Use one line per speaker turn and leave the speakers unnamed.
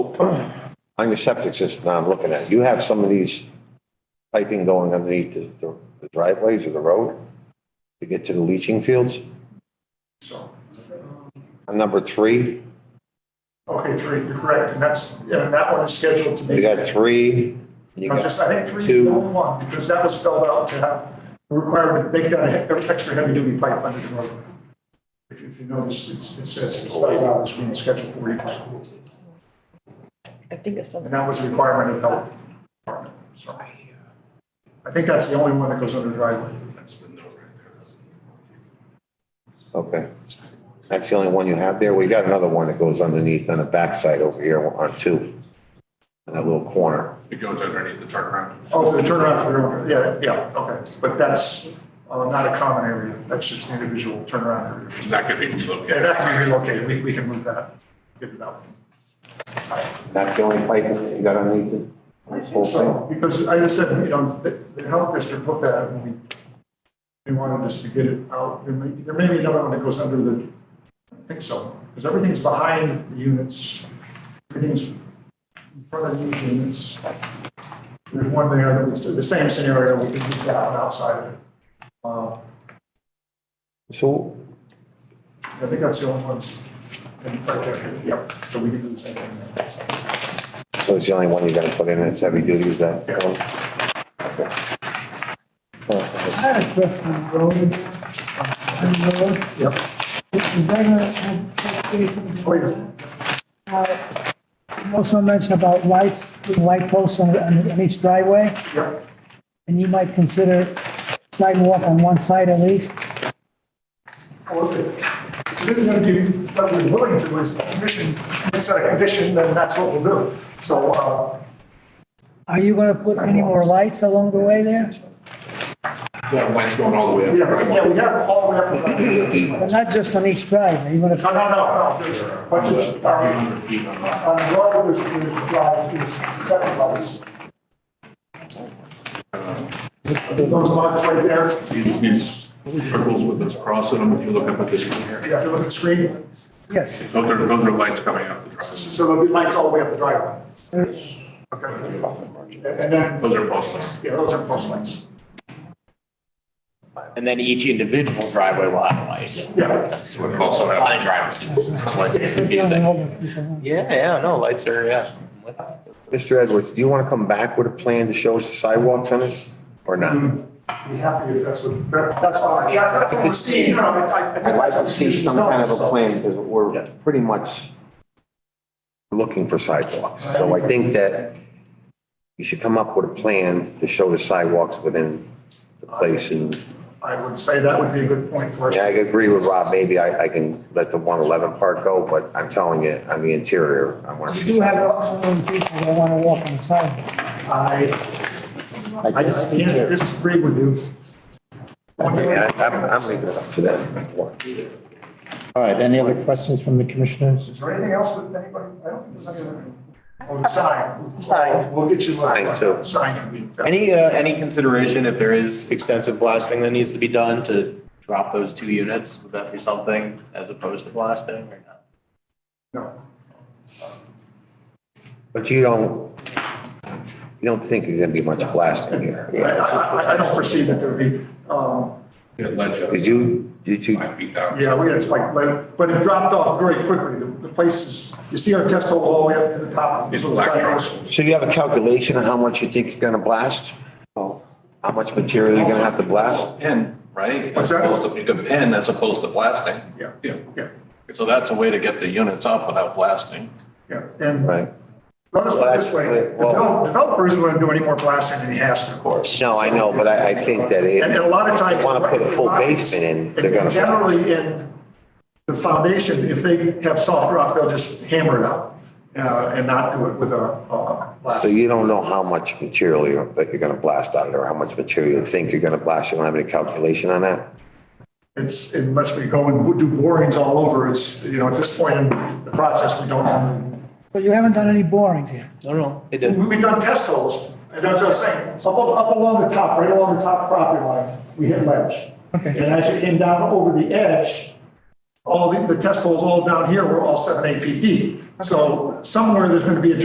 on your septic system now I'm looking at, you have some of these piping going underneath the- the the driveways or the road to get to the leaching fields?
So,
On number three,
okay, three, you're correct, and that's, yeah, and that one is scheduled to be.
you got three, and you
No,
got
just, I think three is the
two.
only one, because that was spelled out to have, the requirement to make that a he- extra heavy duty pipe under the road. If you, if you notice, it's, it says it's spelled out as being schedule forty pipe,
I think it's
and
something.
that was a requirement of health department, so. I think that's the only one that goes under the driveway.
Okay. That's the only one you have there? We got another one that goes underneath on the backside over here on two, in that little corner.
It goes underneath the turnaround.
Oh, the turnaround for, yeah, yeah, okay, but that's, uh, not a common area, that's just an individual turnaround area.
It's not going to be
Yeah,
located.
that can be relocated, we, we can move that, get it out.
That's the only pipe that you got underneath it? This whole thing?
So, because I just said, you know, the, the health district looked at it and we, we wanted us to get it out. There may, there may be another one that goes under the, I don't think so, because everything's behind the units. Everything's in front of these units. There's one there, it's the same scenario, we could move that one outside of it. Uh,
So
I think that's the only ones. And right there, yep, so we can do the same thing. there.
So it's the only one you're gonna put in that's heavy duty, is that?
Yeah.
I had a question, Roland. Is
Yep.
that a, a,
Oh, yeah.
you also mentioned about lights, light posts on, on each driveway,
Yep.
and you might consider sidewalk on one side at least.
If it isn't gonna do what we're willing to as a commission, makes that a condition, then that's what we'll do. So, uh,
Are you gonna put any more lights along the way there?
Yeah, lights going all the way up.
yeah, right, yeah, we have all the way up.
But not just on each drive, are you gonna,
No, no, no, no, there's a bunch of, um,
300 feet on
on the road, there's, there's drive, there's seven levels. Those marks right there, yeah,
You just need circles with those crossing them if you look up at this one here.
if you look at the screen,
yes,
Those are, those are lights coming up the truss.
so there'll be lights all the way up the driveway. Okay. And and then,
Those are post lights.
yeah, those are post lights.
And then each individual driveway will have a light.
Yeah.
That's what we also have on drivers. It's like, it's confusing. Yeah, yeah, no, lights are, yeah.
Mr. Edwards, do you wanna come back with a plan to show us the sidewalks on this, or not?
Be happy if that's what, that- that's fine, yeah, that's what we're seeing, no, I, I.
I'd like to see some kind of a plan, because we're pretty much looking for sidewalks. So I think that you should come up with a plan to show the sidewalks within the place, and
I would say that would be a good point for us.
Yeah, I agree with Rob, maybe I, I can let the one eleven part go, but I'm telling you, on the interior, I wanna
you
see.
do have
sidewalks.
some people that wanna walk on the sidewalk.
I, I
I just-
just can't disagree with you.
Yeah, I'm, I'm leaving it up to them.
All right, any other questions from the commissioners?
Is there anything else that anybody, I don't think there's any other. Oh, the sign.
Sign.
We'll get you.
Sign, too.
Sign. can be-
Any, uh, any consideration if there is extensive blasting that needs to be done to drop those two units? Would that be something as opposed to blasting or not?
No.
But you don't, you don't think there's gonna be much blasting here?
I, I, I don't foresee that there would be, um,
Yeah, ledge up
Did you, did you,
five feet down.
Yeah, we had, like, like, but it dropped off very quickly. The- The place is, you see our test hole all the way up to the top.
It's black trucks.
so you have a calculation of how much you think you're gonna blast? How much material you're gonna have to blast?
pin, right?
What's that?
As opposed to, you could pin as opposed to blasting.
Yeah, yeah, yeah,
So that's a way to get the units up without blasting.
yeah. And
Right?
let us put it this way,
Well, that's-
develop- developer isn't going to do any more blasting than he has to. Of course.
No, I know, but I, I think that if.
And and a lot of times.
If you wanna put a full basement in, they're gonna.
Generally, in the foundation, if they have soft rock, they'll just hammer it out uh, and not do it with a, uh, blast.
So you don't know how much material you're, that you're gonna blast out of there, how much material you think you're gonna blast, you don't have any calculation on that?
It's, unless we go and do borings all over, it's, you know, at this point in the process, we don't know.
So you haven't done any borings here?
No, no, it didn't.
We- We've done test holes, and that's what I was saying, So up, up along the top, right along the top property line, we hit ledge. Okay. And as it came down over the edge, all the, the test holes all down here were all seven, eight feet deep. So somewhere there's gonna be a